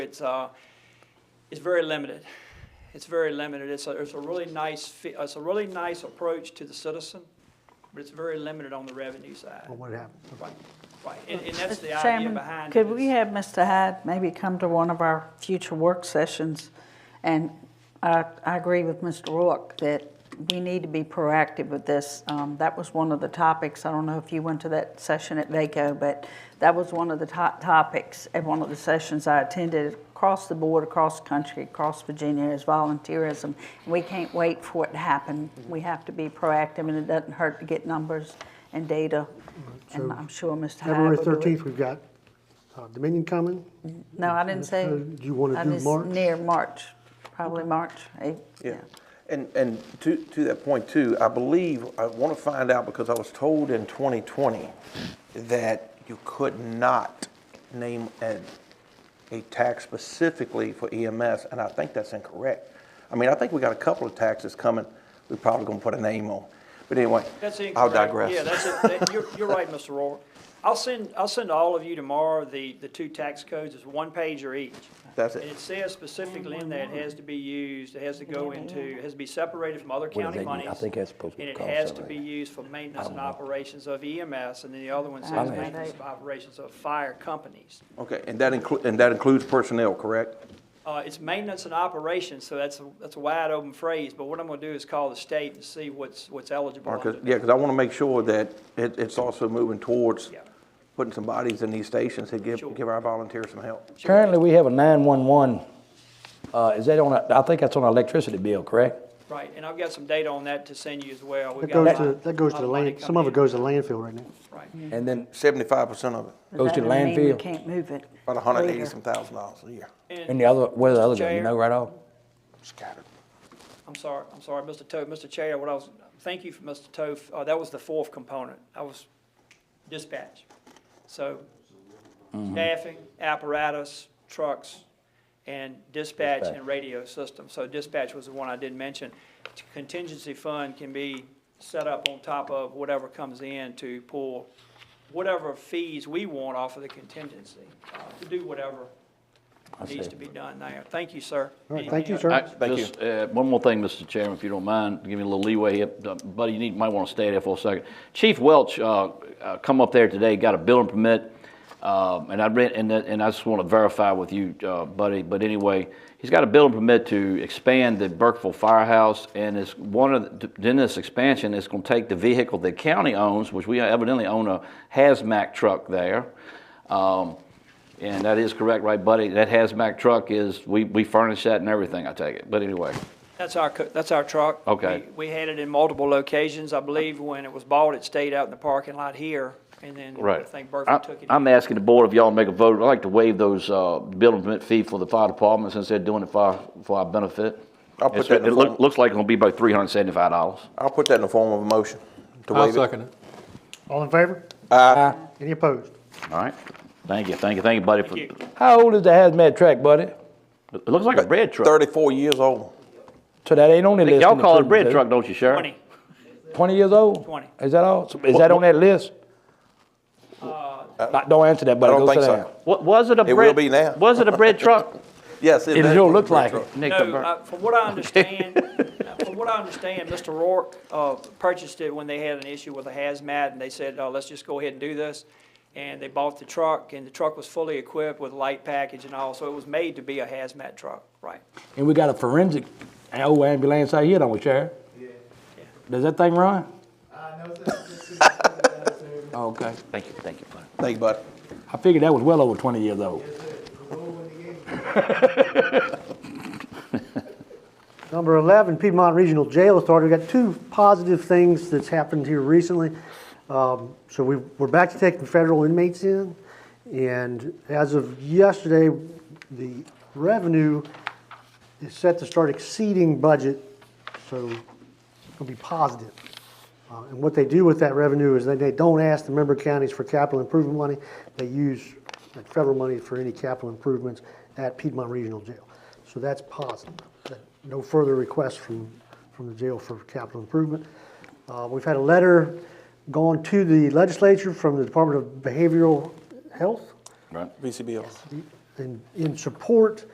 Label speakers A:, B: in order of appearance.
A: it's, uh, it's very limited. It's very limited. It's a, it's a really nice, fe- it's a really nice approach to the citizen, but it's very limited on the revenue side.
B: Well, what happened?
A: Right, right. And, and that's the
C: Mr.
A: idea
C: Chairman,
A: behind it.
C: could
A: is-
C: we have Mr. Hyde maybe come to one of our future work sessions? And I, I agree with Mr. Rourke that we need to be proactive with this. Um, that was one of the topics, I don't know if you went to that session at VACO, but that was one of the top topics at one of the sessions I attended across the board, across the country, across Virginia is volunteerism. We can't wait for it to happen. We have to be proactive and it doesn't hurt to get numbers and data. And
B: So,
C: I'm sure Mr. Hyde
B: February
C: will do it.
B: thirteenth, we've got uh, Dominion coming.
C: No, I didn't say.
B: Uh, do you wanna
C: I
B: do
C: just-
B: March?
C: Near March, probably March, eh,
D: Yeah, and, and to, to that point too, I believe, I want to find out, because I was told in 2020 that you could not name a, a tax specifically for EMS, and I think that's incorrect. I mean, I think we got a couple of taxes coming, we're probably going to put a name on, but anyway,
A: That's incorrect.
D: I'll digress.
A: Yeah, that's it. That- You're, you're right, Mr. Rourke. I'll send, I'll send all of you tomorrow the, the two tax codes. It's one pager each.
D: That's
A: And
D: it.
A: it says specifically in there, it has to be used, it has to go into, it has to be separated from other
E: do
A: county
E: they do? I
A: monies.
E: think that's supposed to
A: And it
E: cost
A: has to be
E: something.
A: used for maintenance and operations of EMS, and then the other one
C: I
A: says
C: don't know.
A: maintenance of operations of fire companies.
D: Okay, and that include, and that includes personnel, correct?
A: Uh, it's maintenance and operations, so that's, a that's a wide open phrase, but what I'm gonna do is call the state and see what's, what's eligible.
D: Marcus,
A: under-
D: yeah, because I want to make sure that it, it's also moving towards
A: Yeah.
D: putting some bodies in these stations to give,
A: Sure.
D: give our volunteers some help.
E: Currently, we have a 911, uh, is that on, our- I think that's on our electricity bill, correct?
A: Right, and I've got some data on that to send you as well. We've
B: That
A: got a
B: goes
A: lot-
B: to, that goes
A: lot
B: to the
A: money
B: land, some of
A: coming
B: it goes to landfill right now.
A: in. Right.
F: Mm-hmm.
E: And then
D: Seventy-five percent of it,
C: but
E: Goes to
C: that doesn't mean we
E: landfill.
C: Can't move it.
D: about a hundred and
C: later.
D: eighty some thousand dollars a year
E: And
A: And,
E: the other, what are the other, go- you
A: Chair.
E: know right off?
D: scattered.
A: I'm sorry, I'm sorry, Mr. Toth, Mr. Chair, what I was, thank you for Mr. Toth, uh, that was the fourth component. I was dispatch. So
E: Mm-hmm.
A: staffing, apparatus, trucks, and dispatch and
E: Dispatch.
A: radio system. So dispatch was the one I did mention. Contingency fund can be set up on top of whatever comes in to pull whatever fees we want off of the contingency, uh, to do whatever
E: I
A: needs
E: see.
A: to be done there. Thank you, sir.
B: All right, thank you,
A: Any-
B: sir.
F: I- Just uh, one more thing, Mr. Chairman, if you don't mind, give me a little leeway here. Uh, Buddy, you need, might want to stay there for a second. Chief Welch uh, uh, come up there today, got a building permit, um, and I read, and that- and I just want to verify with you, uh, Buddy, but anyway, he's got a building permit to expand the Burkeville Firehouse, and it's one of, the- in this expansion, it's going to take the vehicle the county owns, which we evidently own a hazmat truck there. Um, and that is correct, right, buddy? That hazmat truck is, we, we furnish that and everything, I take it. But anyway,
A: That's our, co- that's our truck.
F: Okay.
A: We we had it in multiple locations. I believe when it was bought, it stayed out in the parking lot here, and then I
F: right.
A: think
F: I-
A: Burford took it.
F: I'm asking the board if y'all make a vote. I'd like to waive those, uh, building permit fee for the fire department since they're doing it for, our- for our benefit.
D: I'll put
F: It's-
D: that in
F: It
D: the
F: look-
D: form.
F: looks like it'll be about three hundred and seventy-five dollars.
D: I'll put that in the form of a motion to
G: I'll
D: waive it.
G: second it.
B: All in favor? Aye. Any opposed?
F: All right? Thank you, thank you, thank you, buddy. for-
A: Thank you.
E: How old is the hazmat track, buddy?
F: It looks like a bread truck.
D: Thirty-four years old.
E: So that ain't on the list.
F: Y'all
E: in the
F: call it a
E: prison,
F: bread
E: is
F: truck, don't you, Sheriff?
A: Twenty,
E: 20 years old?
A: 20.
E: Is that all? So Is that on that list?
F: Uh,
E: Not- Don't answer that, buddy,
D: I don't
E: go sit
D: think so.
E: down.
F: What, was it a bread?
D: will be now.
F: Was it a bread truck?
D: Yes. It
E: It
D: does
E: sure
D: a
E: look
D: great
E: like
D: truck.
E: it.
F: Nick,
A: No,
F: the bur-
A: uh, from what I understand, uh, from what I understand, Mr. Rourke uh, purchased it when they had an issue with a hazmat, and they said, uh, let's just go ahead and do this. And they bought the truck, and the truck was fully equipped with light package and all, so it was made to be a hazmat truck, right?
E: And we got a forensic old ambulance out here, don't we, Sheriff? Does that thing run? Okay.
F: Thank you, thank you, buddy.
D: Thank you, buddy.
E: I figured that was well over 20 years old.
B: Number 11, Piedmont Regional Jail Authority. We've got two positive things that's happened here recently. Um, So we, we're back to taking federal inmates in, and as of yesterday, the revenue is set to start exceeding budget, so it'll be positive. Uh, And what they do with that revenue is they, they don't ask the member counties for capital improvement money. They use like federal money for any capital improvements at Piedmont Regional Jail. So that's positive. That- No further requests from, from the jail for capital improvement. Uh, We've had a letter gone to the legislature from the Department of Behavioral Health
F: Right.
D: VCBL.
B: and in, in support